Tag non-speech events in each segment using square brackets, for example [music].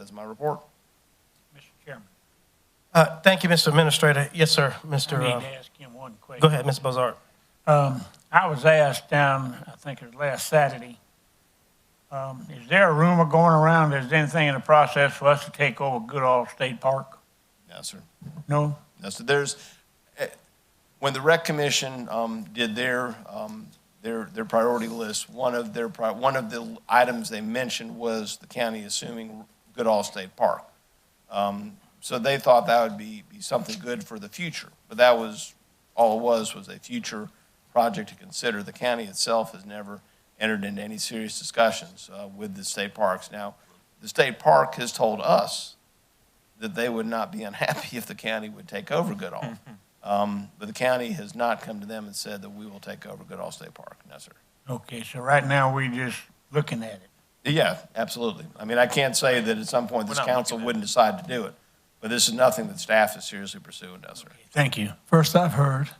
ends my report. Mr. Chairman, Uh, Thank you, Mr. Administrator. Yes, sir, I Mr. need to uh, ask him one question. Go ahead, Ms. Bozard. Um, I was asked down, I think it was last Saturday, um, is there a rumor going around, is there anything in the process for us to take over Goodall State Park? Yes, sir. No? Yes, sir. There's, eh, when the rec commission um, did their, um, their, their priority list, one of their, pri- one of the items they mentioned was the county assuming Goodall State Park. Um, So they thought that would be, be something good for the future, but that was, all it was, was a future project to consider. The county itself has never entered into any serious discussions uh, with the state parks. Now, the state park has told us that they would not be unhappy if the county would take over Goodall. Um, But the county has not come to them and said that we will take over Goodall State Park. No, sir. Okay, so right now, we just looking at it. Yeah, absolutely. I mean, I can't say that at some point this council wouldn't decide to do it, but this is nothing that staff is seriously pursuing, no, sir. Thank you. First I've heard.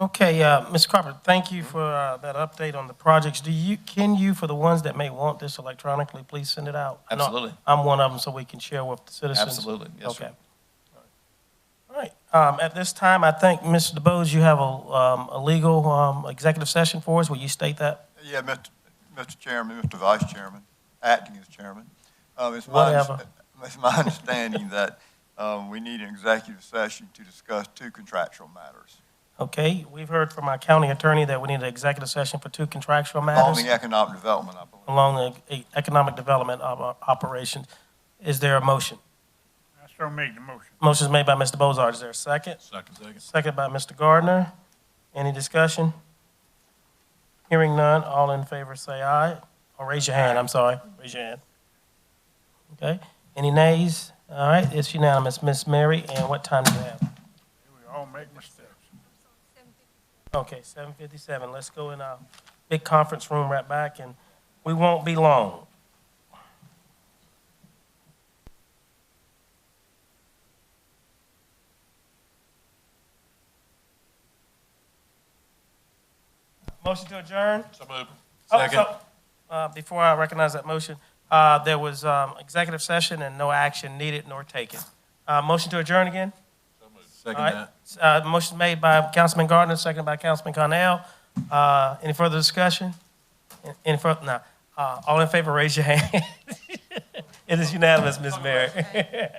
Okay, uh, Ms. Crawford, thank you for uh, that update on the projects. Do you, can you, for the ones that may want this electronically, please send it out? I know Absolutely. I'm one of them, so we can share with the citizens. Absolutely, yes, sir. Okay. All right, Um, at this time, I think, Mr. DeBose, you have a um, a legal um, executive session for us. Will you state that? Yeah, Mr. Mr. Chairman, Mr. Vice Chairman, acting as chairman. Uh, It's my, Whatever. it's my [laughs] understanding that um, we need an executive session to discuss two contractual matters. Okay, we've heard from our county attorney that we need an executive session for two contractual matters. On the economic development, I believe. along the e- economic development of our operations. Is there a motion? I still make the motion. Motion's made by Mr. Bozard. Is there a second? Second. Second. Second by Mr. Gardner. Any discussion? Hearing none, all in favor say aye, or raise your hand, I'm sorry, raise your hand. Okay, any nays? All right, it's unanimous. Miss Mary, and what time do you have? We all make mistakes. Okay, seven fifty-seven, let's go in our big conference room right back, and we won't be long. Motion to adjourn? So moved. Oh, so, Uh, before I recognize that motion, uh, there was, um, executive session and no action needed nor taken. Uh, motion to adjourn again? Second All that. right. Uh, motion made by Councilman Gardner, seconded by Councilman Cornell. Uh, any further discussion? Any further, no. [laughs] Uh, all in favor, raise your hand. It is unanimous, Ms. Mary.